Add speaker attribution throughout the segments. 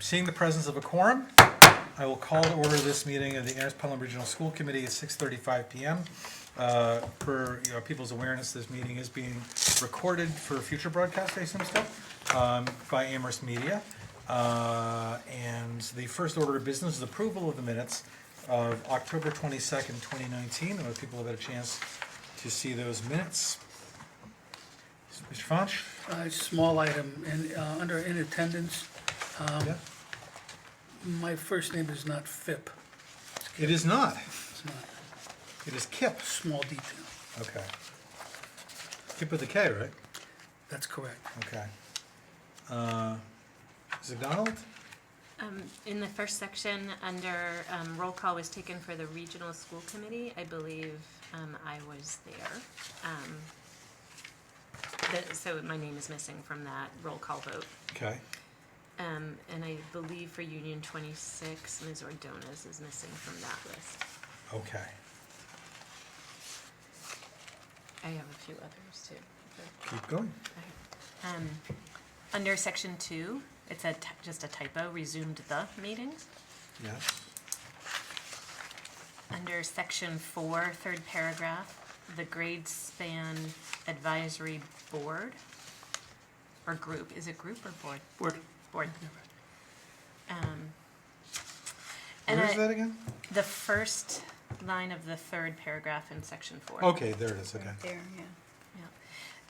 Speaker 1: Seeing the presence of a quorum, I will call to order this meeting of the Anderson Pelham Regional School Committee at 6:35 PM. Uh, For, you know, people's awareness, this meeting is being recorded for future broadcast, I assume still, um, by Amherst Media. Uh, And the first order of business is approval of the minutes of October 22nd, 2019. I hope people have had a chance to see those minutes. Mr. Fauch?
Speaker 2: A small item, and uh, under in attendance,
Speaker 1: Yeah.
Speaker 2: my first name is not Phip,
Speaker 1: It is not.
Speaker 2: it's not,
Speaker 1: It is Kip.
Speaker 2: small detail,
Speaker 1: Okay. Kip with a K, right?
Speaker 2: that's correct.
Speaker 1: Okay. Uh, Mrs. McDonald?
Speaker 3: Um, In the first section, under um, roll call was taken for the regional school committee, I believe um, I was there. Um, that- So my name is missing from that roll call vote.
Speaker 1: Okay.
Speaker 3: Um, And I believe for Union 26, Ms. Ordonez is missing from that list.
Speaker 1: Okay.
Speaker 3: I have a few others too. but-
Speaker 1: Keep going.
Speaker 3: Um, Under section two, it said ty- just a typo, resumed the meetings.
Speaker 1: Yes.
Speaker 3: Under section four, third paragraph, the grade span advisory board or group, is it group or board?
Speaker 2: Board,
Speaker 3: Board. Um, And
Speaker 1: Where's
Speaker 3: I-
Speaker 1: that again?
Speaker 3: the first line of the third paragraph in section four.
Speaker 1: Okay, there it is. Okay.
Speaker 4: There, yeah.
Speaker 3: Yeah.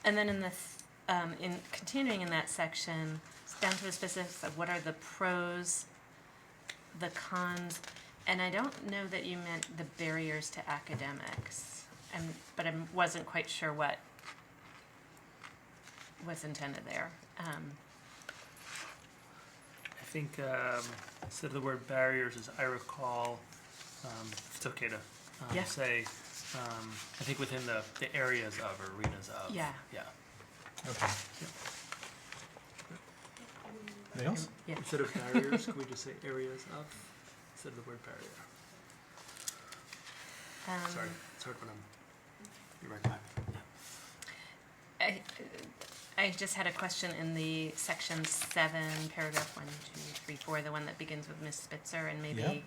Speaker 3: And then in this, um, in continuing in that section, it's down to the specifics of what are the pros, the cons, and I don't know that you meant the barriers to academics, and, but I wasn't quite sure what was intended there. Um,
Speaker 5: I think um, instead of the word barriers, as I recall, um, if it's okay to um,
Speaker 3: Yeah.
Speaker 5: say, um, I think within the, the areas of or arenas of.
Speaker 3: Yeah.
Speaker 5: Yeah.
Speaker 1: Okay. Anything else?
Speaker 3: Yeah.
Speaker 5: Instead of barriers, could we just say areas of instead of the word barrier?
Speaker 3: um,
Speaker 5: Sorry, it's hard when I'm. You're right.
Speaker 3: I, I just had a question in the section seven, paragraph one, two, three, four, the one that begins with Ms. Spitzer, and maybe,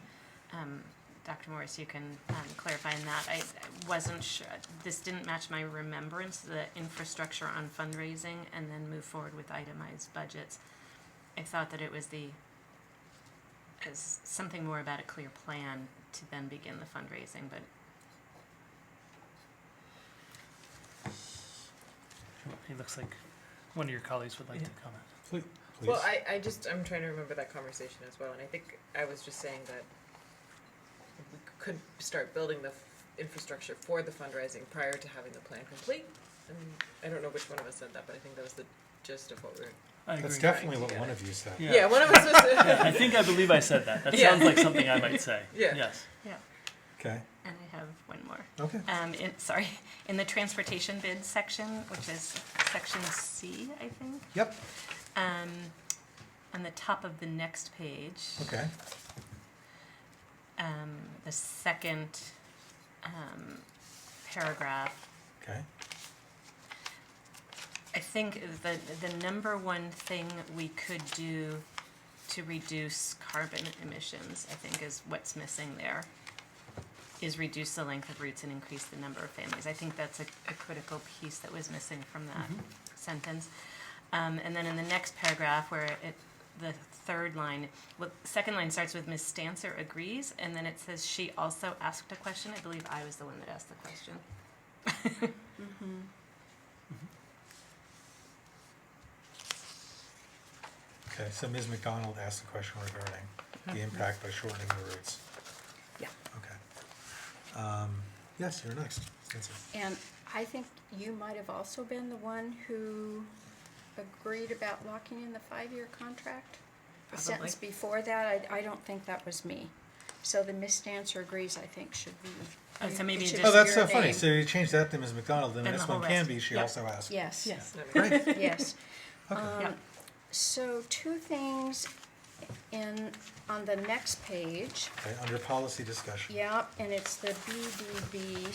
Speaker 3: um, Dr. Morris, you can, um, clarify in that. I I wasn't sure, this didn't match my remembrance, the infrastructure on fundraising, and then move forward with itemized budgets. I thought that it was the, as something more about a clear plan to then begin the fundraising, but
Speaker 5: He looks like one of your colleagues would like to comment.
Speaker 1: Please. Please.
Speaker 6: Well, I, I just, I'm trying to remember that conversation as well, and I think I was just saying that we could start building the f- infrastructure for the fundraising prior to having the plan complete. And I don't know which one of us said that, but I think that was the gist of what we were.
Speaker 5: I agree.
Speaker 1: That's definitely what one of you said.
Speaker 5: Yeah.
Speaker 6: Yeah, one of us was.
Speaker 5: Yeah, I think I believe I said that. That
Speaker 6: Yeah.
Speaker 5: sounds like something I might say.
Speaker 6: Yeah.
Speaker 5: Yes.
Speaker 1: Okay.
Speaker 3: and I have one more.
Speaker 1: Okay.
Speaker 3: Um, in, sorry, in the transportation bid section, which is section C, I think,
Speaker 1: Yep.
Speaker 3: um, on the top of the next page.
Speaker 1: Okay.
Speaker 3: Um, the second, um, paragraph,
Speaker 1: Okay.
Speaker 3: I think the, the number one thing we could do to reduce carbon emissions, I think is what's missing there, is reduce the length of routes and increase the number of families. I think that's a, a critical piece that was missing from that sentence. Um, and then in the next paragraph where it, the third line, well, second line starts with Ms. Stancer agrees, and then it says she also asked a question. I believe I was the one that asked the question.
Speaker 4: Mm-hmm.
Speaker 1: Okay. So Ms. McDonald asked a question regarding the impact by shortening the routes.
Speaker 4: Yeah.
Speaker 1: Okay. Um, yes, you're next. Nancy.
Speaker 4: And I think you might have also been the one who agreed about locking in the five-year contract. The sentence
Speaker 6: Probably.
Speaker 4: before that, I, I don't think that was me. So the Miss Dancer agrees, I think, should be.
Speaker 3: Oh, so maybe
Speaker 4: it should
Speaker 3: just-
Speaker 4: be
Speaker 1: Oh, that's
Speaker 4: your
Speaker 1: so funny.
Speaker 4: name.
Speaker 1: So you changed that to Ms. McDonald, and the
Speaker 3: And the
Speaker 1: next one
Speaker 3: whole
Speaker 1: can
Speaker 3: rest.
Speaker 1: be, she
Speaker 3: Yep.
Speaker 1: also asked.
Speaker 4: Yes,
Speaker 1: Great.
Speaker 4: yes. Um,
Speaker 1: Okay.
Speaker 3: Yeah.
Speaker 4: So two things in, on the next page.
Speaker 1: Okay, under policy discussion.
Speaker 4: Yep, and it's the BDB